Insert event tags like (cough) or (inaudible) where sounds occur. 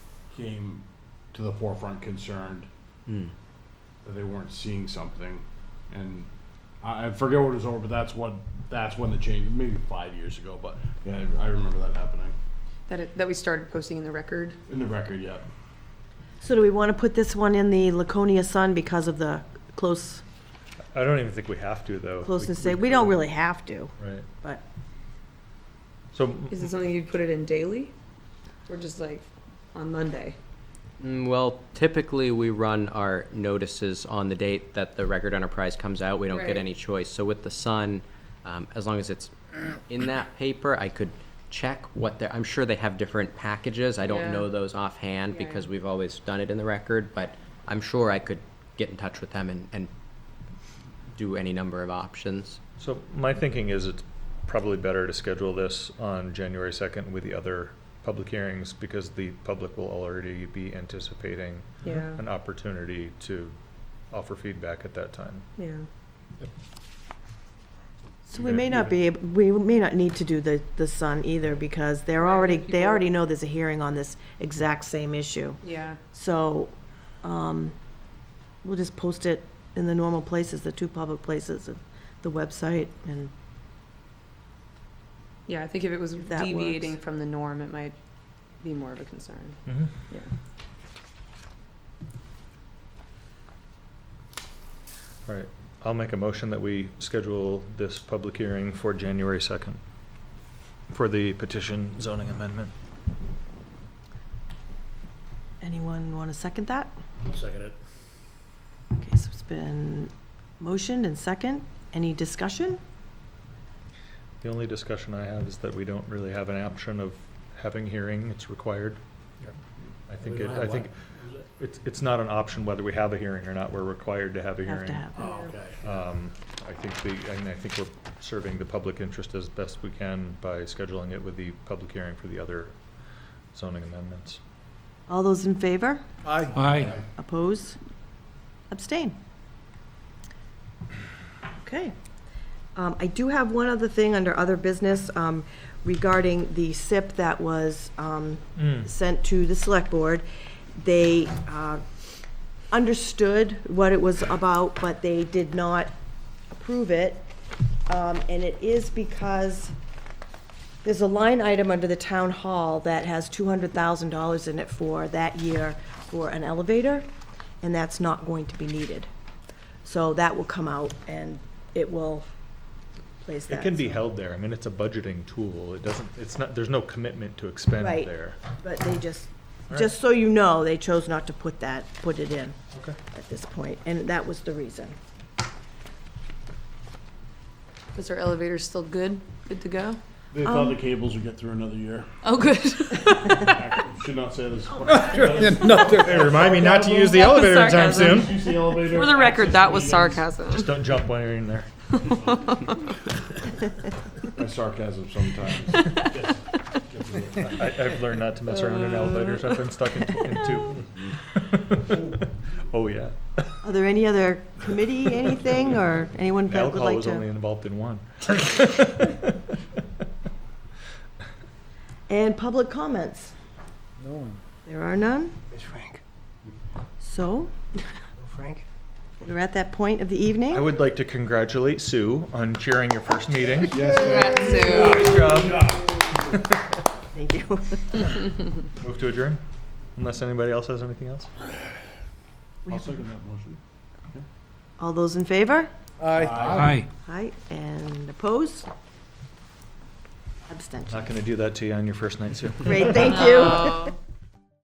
came to the forefront concerned Hmm. that they weren't seeing something, and I, I forget what it was over, but that's what that's when the change, maybe five years ago, but yeah, I, I remember that happening That, it, that we started posting in the record. in the record. Yeah, So do we want to put this one in the Laconia Sun because of the close, I don't even think we have to though. closeness? We don't really have to, Right. but So Is it something you'd put it in daily? Or just like on Monday? Mm, Well, typically, we run our notices on the date that the Record Enterprise comes out. We don't Right. get any choice. So with the Sun, um, as long as it's (clears throat) in that paper, I could check what they're, I'm sure they have different packages. I Yeah. don't know those offhand Yeah. because we've always done it in the Record, but I'm sure I could get in touch with them and, and do any number of options. So my thinking is it's probably better to schedule this on January second with the other public hearings because the public will already be anticipating Yeah. an opportunity to offer feedback at that time. Yeah. So we may not be, ab- we may not need to do the, the sun either, because they're Right, already, people- they already know there's a hearing on this exact same issue. Yeah. So, um, we'll just post it in the normal places, the two public places, and the website, and, Yeah, I think if it was That deviating works. from the norm, it might be more of a concern. Mm-hmm. Yeah. All right, I'll make a motion that we schedule this public hearing for January second for the petition zoning amendment. anyone want to second that? Second it. Okay, so it's been motioned and second. Any discussion? The only discussion I have is that we don't really have an option of having hearing, it's required. I think, We it- don't have I think one. Is it? it's, it's not an option whether we have a hearing or not, we're required to have a Have hearing. to have. it. Oh, okay. Um, I think the, and I think we're serving the public interest as best we can by scheduling it with the public hearing for the other zoning amendments. All those in favor? Aye. aye. Oppose? Abstain? Okay. Um, I do have one other thing under other business um, regarding the SIP that was um, Hmm. Mm. sent to the select board. They uh, understood what it was about, but they did not approve it. Um, And it is because there's a line item under the town hall that has two hundred thousand dollars in it for that year for an elevator, and that's not going to be needed. So that will come out and it will place that. It can be held there, I mean, it's a budgeting tool, it doesn't, it's not, there's no commitment to expend Right. (laughs) there. But they just, All just so you know, they chose not to put that, put it in Okay. at this point, and that was the reason. Is our elevator still good? Good to go? They Um, thought the cables would get through another (laughs) year. Oh, good. Should not say (laughs) this. Hey, remind me not to use the That was elevator anytime sarcasm. soon. You see elevator For the record, access that was meetings. sarcasm. Just don't jump while you're in there. My sarcasm (laughs) sometimes. gets- gets a little- I, I've learned not to mess around in elevators. I've been stuck in, in two. (laughs) oh yeah. Are there any other committee, anything, or anyone that would Alcohol like was only to? involved in one. And public comments? No one. There are none, It's Frank. so Frank? we're at that point of the evening. I would like to congratulate Sue on chairing your first meeting. Congrats, Sue. Thank you. Move to adjourn. Unless anybody else has anything else. I'll second that motion. All those in favor? Aye. Aye, and opposed? Abstention. Not going to do that to you on your first night, Sue. Great, thank you. Oh.